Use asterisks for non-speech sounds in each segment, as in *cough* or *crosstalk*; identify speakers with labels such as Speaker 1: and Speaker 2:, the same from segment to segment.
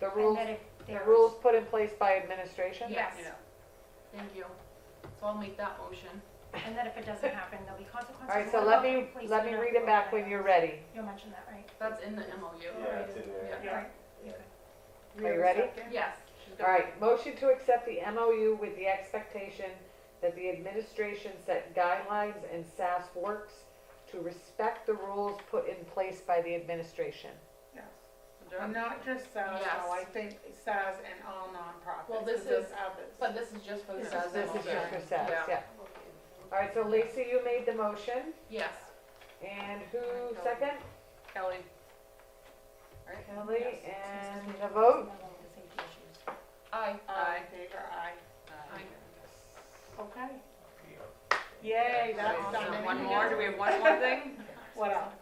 Speaker 1: The
Speaker 2: and
Speaker 1: rules,
Speaker 2: that if
Speaker 1: the
Speaker 2: there's.
Speaker 1: rules put in place by administration?
Speaker 2: Yes,
Speaker 3: Yeah. Thank you. So I'll make that motion.
Speaker 2: and that if it doesn't happen, there'll be consequences.
Speaker 1: All right, so
Speaker 2: What
Speaker 1: let
Speaker 2: about
Speaker 1: me,
Speaker 2: police
Speaker 1: let me
Speaker 2: uniform?
Speaker 1: read it back when you're ready.
Speaker 2: You'll mention that, right?
Speaker 3: That's in the MOU.
Speaker 4: Yeah, it's in there.
Speaker 3: Yeah.
Speaker 2: Right,
Speaker 4: Yeah.
Speaker 2: okay.
Speaker 1: Are you ready?
Speaker 3: Yes. she's
Speaker 1: All
Speaker 3: got it.
Speaker 1: right, motion to accept the MOU with the expectation that the administration set guidelines and SAS works to respect the rules put in place by the administration.
Speaker 5: Yes.
Speaker 3: Good job.
Speaker 5: And Not just SARS, though, I
Speaker 3: Yes.
Speaker 5: think SARS and all nonprofits.
Speaker 3: Well, this
Speaker 5: 'cause there's
Speaker 3: is-
Speaker 5: others.
Speaker 3: But this is just for the
Speaker 5: This is-
Speaker 3: SAS.
Speaker 1: This is just for
Speaker 3: motion.
Speaker 1: SAS, yeah. All right, so Lacey, you made the motion,
Speaker 3: Yes.
Speaker 1: and who second?
Speaker 3: Kelly.
Speaker 1: Kelly,
Speaker 2: Yes.
Speaker 1: and the vote?
Speaker 2: Another one of the safety issues.
Speaker 3: Aye.
Speaker 5: Aye, Favor aye.
Speaker 3: Aye.
Speaker 5: Okay. Yay, that's
Speaker 3: Awesome.
Speaker 5: done.
Speaker 3: One more? Do we have one more thing?
Speaker 5: What else?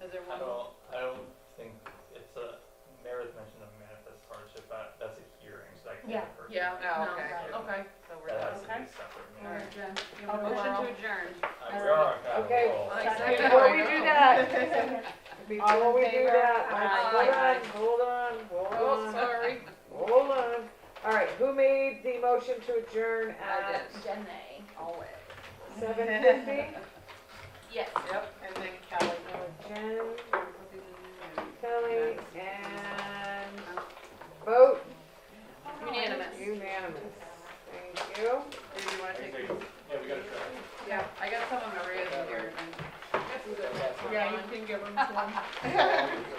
Speaker 3: Is there
Speaker 6: I
Speaker 3: one?
Speaker 6: don't, I don't think it's a, Meredith mentioned a manifest hardship, that, that's a hearing, so that can be
Speaker 2: Yeah.
Speaker 6: a person.
Speaker 3: Yeah,
Speaker 5: Oh,
Speaker 3: no,
Speaker 5: okay.
Speaker 3: okay. So
Speaker 6: That has to
Speaker 5: Okay.
Speaker 6: be separate.
Speaker 3: All
Speaker 6: meeting.
Speaker 3: right, Jen. You
Speaker 5: I'll
Speaker 3: have a
Speaker 5: *laughs* go
Speaker 3: motion
Speaker 5: out.
Speaker 3: to adjourn.
Speaker 6: Uh, we are on
Speaker 1: Okay.
Speaker 6: roll.
Speaker 3: Aye.
Speaker 1: Before we do that, before
Speaker 5: All
Speaker 1: we
Speaker 5: in
Speaker 1: do
Speaker 5: favor?
Speaker 1: that,
Speaker 3: Aye.
Speaker 1: hold on, hold on, hold
Speaker 3: Oh,
Speaker 1: on.
Speaker 3: sorry.
Speaker 1: Hold on. All right, who made the motion to adjourn at
Speaker 3: Jen, always. *laughs*
Speaker 1: seven fifty?
Speaker 3: Yes. Yep.
Speaker 5: And then Kelly.
Speaker 1: Jen, Kelly, and vote
Speaker 3: Unanimous.
Speaker 1: unanimous. Thank you.
Speaker 3: Did you wanna take?
Speaker 6: Yeah, we gotta try.
Speaker 3: Yeah, I got some of Maria's in here. and- *laughs*
Speaker 5: Yeah, you can give them to them.